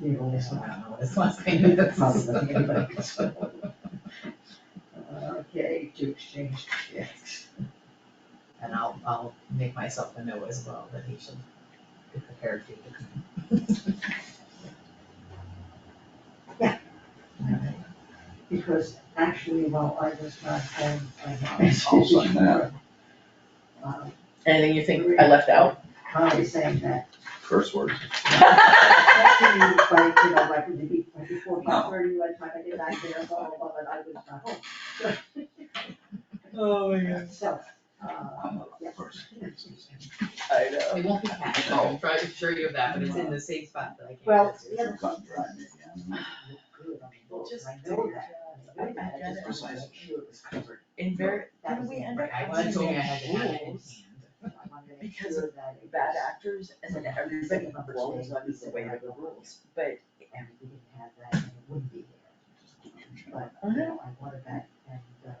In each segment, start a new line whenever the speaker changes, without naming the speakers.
You only smile.
don't know what his last name is.
Probably nothing anybody can spell. Okay, to exchange checks.
And I'll, I'll make myself a note as well, that he should be prepared to.
Because actually, while I was not home, I
It's
had
also in that
uh,
Anything you think I left out?
Connie saying that.
curse word.
Actually, like, you know, like, maybe before five thirty, by the time I get back there, blah, blah, blah, but I was not home.
Oh, my God.
So, uh,
I'm
yeah.
a person.
I know.
It won't be cash, I'm trying to assure you of that, but it's in the same spot that I can't.
Well,
get to.
the other
Cut and dry me again.
look good on the book,
Just
I
do
know that. I
it.
had it, just
Precise.
sure it was covered.
In very,
That
did
was
we
the
end
right
up
I
one.
was
having
told I had to have it in hand.
rules,
I wanted to make
Because
sure that it
bad
was-
actors, and then everybody blows up is the way of the rules, but
and if we didn't have that, then it wouldn't be there. But, you know, I wanted that, and, um,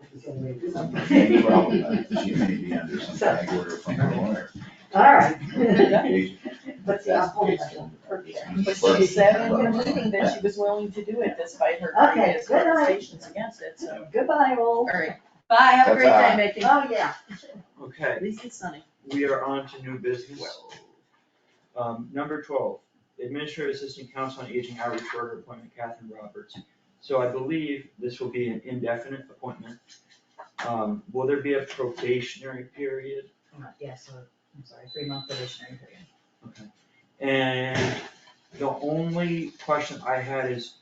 it was the only way to do
The
something.
problem is She may be under some gag order from her lawyer.
All right. uh, But
But
see, I'm holding myself for it.
But she said in her meeting that she was willing to do it despite her
Okay,
previous
good night.
protestations against it, so.
Goodbye, all.
Alright, bye, have a great
Ta-ta.
day, Mickey.
Oh, yeah.
Okay,
At least it's sunny.
we are on to new business. Um, number twelve, Administrative Assistant Council on Aging Outreach Worker Appointment, Catherine Roberts. So I believe this will be an indefinite appointment. Um, will there be a probationary period?
Uh, Yeah, so, I'm sorry, three month probationary period.
And the only question I had is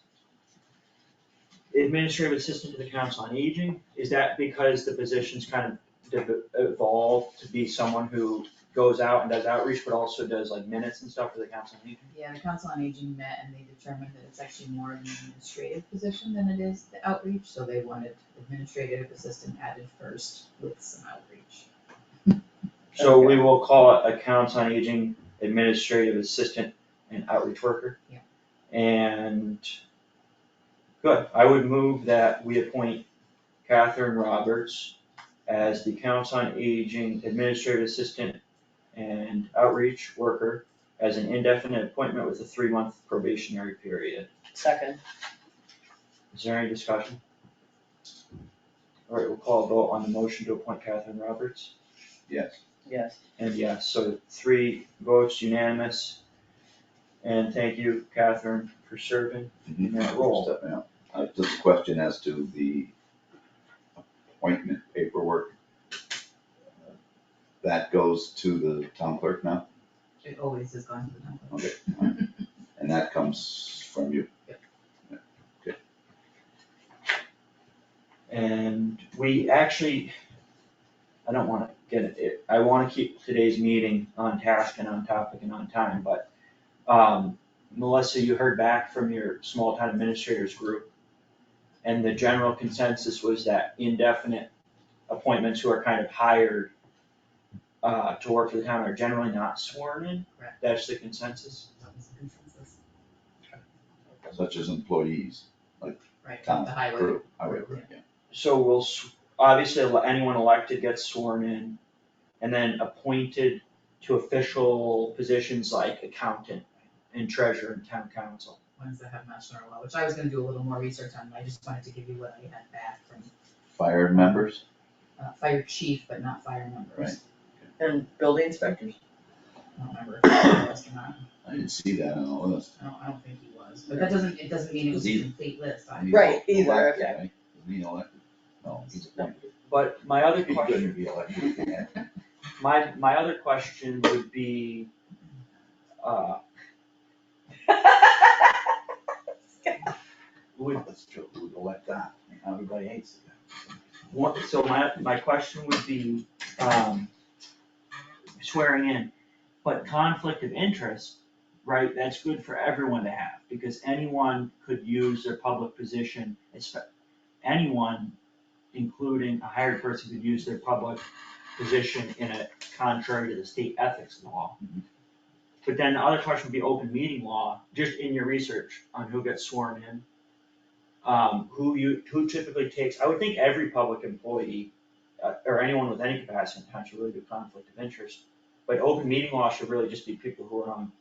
Administrative Assistant to the Council on Aging, is that because the position's kind of dev- evolved to be someone who goes out and does outreach, but also does like minutes and stuff for the Council on Aging?
Yeah, the council on aging met and they determined that it's actually more of an administrative position than it is the outreach, so they wanted administrative assistant added first with some outreach.
So we will call it accounts on aging, administrative assistant and outreach worker.
Yeah.
And, good, I would move that we appoint Catherine Roberts as the accounts on aging, administrative assistant and outreach worker as an indefinite appointment with a three-month probationary period.
Oh,
Second.
Is there any discussion? All right, we'll call a vote on the motion to appoint Catherine Roberts.
Yes,
Yes.
And yeah, so three votes unanimous. And thank you, Catherine, for serving in that role.
step out. Uh, Just a question as to the appointment paperwork. Uh, That goes to the town clerk now,
It always has gone to the council.
okay, fine. and that comes from you.
And we actually, I don't wanna get it- it, I wanna keep today's meeting on task and on topic and on time, but um, Melissa, you heard back from your small town administrators group. And the general consensus was that indefinite appointments who are kind of hired uh, to work for the town are generally not sworn in.
Correct.
That's the consensus.
That was the consensus.
such as employees,
Right,
town
the highway.
crew, highway crew, yeah.
So we'll, s- obviously, ele- anyone elected gets sworn in, and then appointed to official positions like accountant and treasurer and town council.
ones that have national law, which I was gonna do a little more research on, but I just wanted to give you what I had back from
Fire members,
uh, fire chief, but not fire members.
And building inspectors?
I don't remember if he was or not,
I didn't see that on the list.
I don't, I don't think he was, but that doesn't, it doesn't mean it was a
Either.
complete list, I.
He's
Right, either,
elected,
okay.
right? Isn't he elected? No, he's appointed.
But my other
He
question,
couldn't be elected, yeah.
my, my other question would be, uh, would,
That's true, who'd elect that? Everybody hates it.
what, so my, my question would be, um, swearing in, but conflict of interest, right, that's good for everyone to have, because anyone could use their public position, espe- anyone, including a hired person, could use their public position in a contrary to the state ethics law.
Mhm.
But then the other question would be open meeting law, just in your research on who gets sworn in. Um, who you, who typically takes, I would think every public employee, uh, or anyone with any capacity in town should really do conflict of interest. But open meeting law should really just be people who are on